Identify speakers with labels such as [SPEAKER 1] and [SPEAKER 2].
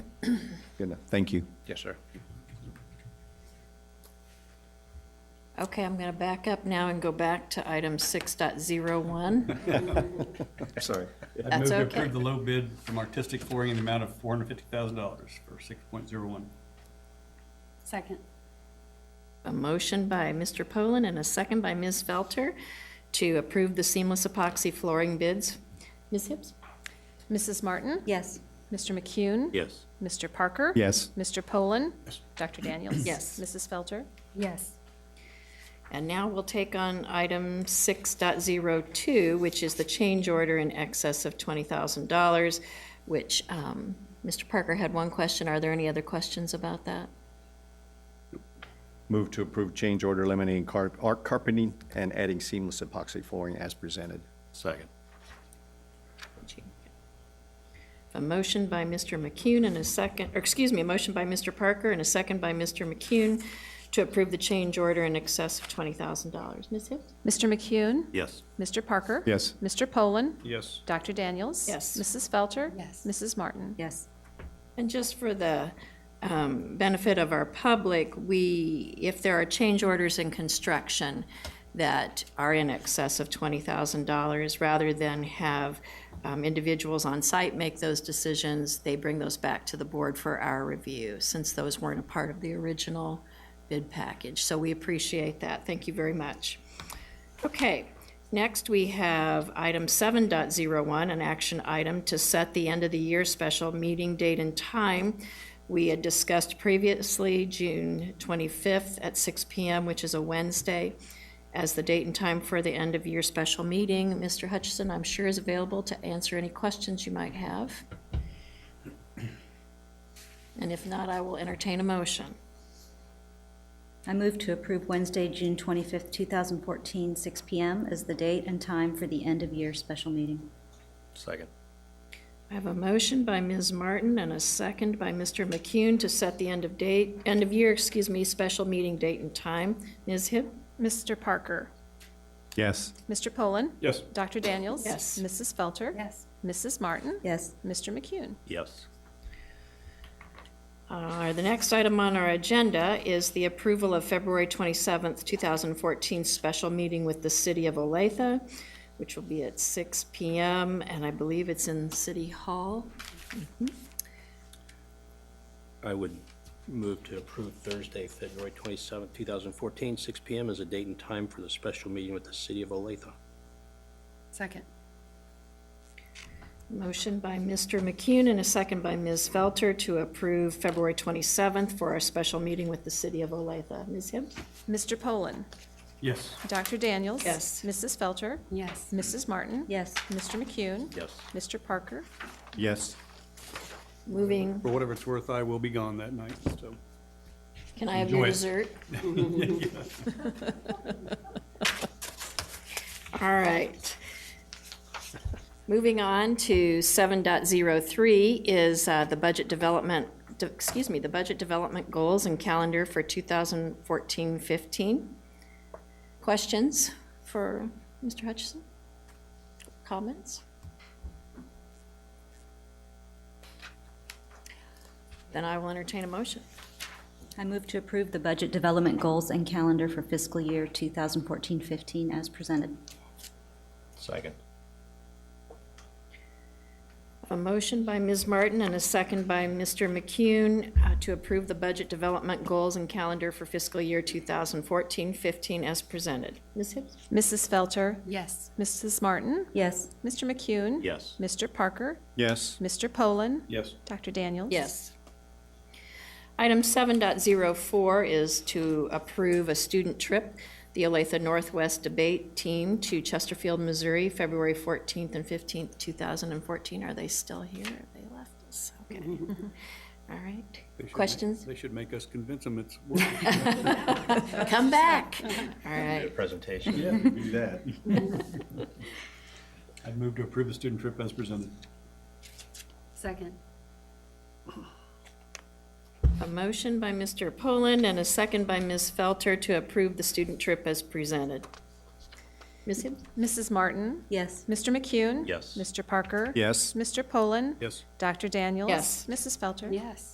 [SPEAKER 1] Good enough. Thank you.
[SPEAKER 2] Yes, sir.
[SPEAKER 3] Okay, I'm going to back up now and go back to item 6.01.
[SPEAKER 1] Sorry.
[SPEAKER 4] I
[SPEAKER 3] That's
[SPEAKER 4] move to
[SPEAKER 3] okay.
[SPEAKER 4] approve the low bid from Artistic Flooring in the amount of four hundred fifty thousand dollars for six point zero one.
[SPEAKER 5] Second.
[SPEAKER 3] A motion by Mr. Poland and a second by Ms. Felter to approve the seamless epoxy flooring bids. Ms. Hibbs?
[SPEAKER 6] Mrs. Martin?
[SPEAKER 5] Yes.
[SPEAKER 6] Mr. McCune?
[SPEAKER 2] Yes.
[SPEAKER 6] Mr. Parker?
[SPEAKER 1] Yes.
[SPEAKER 6] Mr. Poland? Dr. Daniels?
[SPEAKER 3] Yes.
[SPEAKER 6] Mrs. Felter?
[SPEAKER 5] Yes.
[SPEAKER 3] And now we'll take on item 6.02, which is the change order in excess of $20,000, which um, Mr. Parker had one question. Are there any other questions about that?
[SPEAKER 1] Move to approve change order eliminating car- arc carpeting and adding seamless epoxy flooring as presented.
[SPEAKER 2] Second.
[SPEAKER 3] A motion by Mr. McCune and a second, or excuse me, a motion by Mr. Parker and a second by Mr. McCune to approve the change order in excess of $20,000. Ms. Hibbs?
[SPEAKER 6] Mr. McCune?
[SPEAKER 2] Yes.
[SPEAKER 6] Mr. Parker?
[SPEAKER 1] Yes.
[SPEAKER 6] Mr. Poland?
[SPEAKER 4] Yes.
[SPEAKER 6] Dr. Daniels?
[SPEAKER 3] Yes.
[SPEAKER 6] Mrs. Felter?
[SPEAKER 5] Yes.
[SPEAKER 6] Mrs. Martin?
[SPEAKER 5] Yes.
[SPEAKER 3] And just for the um, benefit of our public, we, if there are change orders in construction that are in excess of $20,000, rather than have um, individuals on site make those decisions, they bring those back to the board for our review, since those weren't a part of the original bid package. So we appreciate that. Thank you very much. Okay, next we have item 7.01, an action item to set the end of the year special meeting date and time. We had discussed previously June 25th at 6 PM, which is a Wednesday, as the date and time for the end of year special meeting. Mr. Hutchison, I'm sure is available to answer any questions you might have. And if not, I will entertain a motion.
[SPEAKER 5] I move to approve Wednesday, June 25th, 2014, 6 PM as the date and time for the end-of-year special meeting.
[SPEAKER 2] Second.
[SPEAKER 3] I have a motion by Ms. Martin and a second by Mr. McCune to set the end of date, end of year, excuse me, special meeting date and time. Ms. Hibb?
[SPEAKER 6] Mr. Parker?
[SPEAKER 1] Yes.
[SPEAKER 6] Mr. Poland?
[SPEAKER 4] Yes.
[SPEAKER 6] Dr. Daniels?
[SPEAKER 3] Yes.
[SPEAKER 6] Mrs. Felter?
[SPEAKER 5] Yes.
[SPEAKER 6] Mrs. Martin?
[SPEAKER 5] Yes.
[SPEAKER 6] Mr. McCune?
[SPEAKER 2] Yes.
[SPEAKER 3] Uh, The next item on our agenda is the approval of February 27th, 2014 special meeting with the City of Olathe, which will be at 6 PM, and I believe it's in City Hall.
[SPEAKER 2] I would move to approve Thursday, February twenty seventh, 2014, 6 PM as a date and time for the special meeting with the City of Olathe.
[SPEAKER 6] Second.
[SPEAKER 3] Motion by Mr. McCune and a second by Ms. Felter to approve February 27th for our special meeting with the City of Olathe. Ms. Hibb?
[SPEAKER 6] Mr. Poland?
[SPEAKER 4] Yes.
[SPEAKER 6] Dr. Daniels?
[SPEAKER 3] Yes.
[SPEAKER 6] Mrs. Felter?
[SPEAKER 5] Yes.
[SPEAKER 6] Mrs. Martin?
[SPEAKER 5] Yes.
[SPEAKER 6] Mr. McCune?
[SPEAKER 2] Yes.
[SPEAKER 6] Mr. Parker?
[SPEAKER 1] Yes.
[SPEAKER 3] Moving
[SPEAKER 4] For whatever it's worth, I will be gone that night, so.
[SPEAKER 3] Can I have your
[SPEAKER 4] Enjoy it.
[SPEAKER 3] dessert? All right. Moving on to 7.03 is uh, the budget development, de- excuse me, the budget development goals and calendar for 2014-15. Questions for Mr. Hutchison? Comments? Then I will entertain a motion.
[SPEAKER 5] I move to approve the budget development goals and calendar for fiscal year 2014-15 as presented.
[SPEAKER 2] Second.
[SPEAKER 3] A motion by Ms. Martin and a second by Mr. McCune uh, to approve the budget development goals and calendar for fiscal year 2014-15 as presented. Ms. Hibbs?
[SPEAKER 6] Mrs. Felter?
[SPEAKER 5] Yes.
[SPEAKER 6] Mrs. Martin?
[SPEAKER 5] Yes.
[SPEAKER 6] Mr. McCune?
[SPEAKER 2] Yes.
[SPEAKER 6] Mr. Parker?
[SPEAKER 1] Yes.
[SPEAKER 6] Mr. Poland?
[SPEAKER 4] Yes.
[SPEAKER 6] Dr. Daniels?
[SPEAKER 3] Yes. Item 7.04 is to approve a student trip, the Olathe Northwest Debate Team to Chesterfield, Missouri, February 14th and 15th, 2014. Are they still here? Have they left us? Okay. All right.
[SPEAKER 4] They should make-
[SPEAKER 3] Questions?
[SPEAKER 4] They should make us convince them it's working.
[SPEAKER 3] Come back. All right.
[SPEAKER 2] Presentation.
[SPEAKER 4] Yeah, do that. I'd move to approve the student trip as presented.
[SPEAKER 5] Second.
[SPEAKER 3] A motion by Mr. Poland and a second by Ms. Felter to approve the student trip as presented. Ms. Hibbs?
[SPEAKER 6] Mrs. Martin?
[SPEAKER 5] Yes.
[SPEAKER 6] Mr. McCune?
[SPEAKER 2] Yes.
[SPEAKER 6] Mr. Parker?
[SPEAKER 1] Yes.
[SPEAKER 6] Mr. Poland?
[SPEAKER 4] Yes.
[SPEAKER 6] Dr. Daniels?
[SPEAKER 3] Yes.
[SPEAKER 6] Mrs. Felter?
[SPEAKER 5] Yes.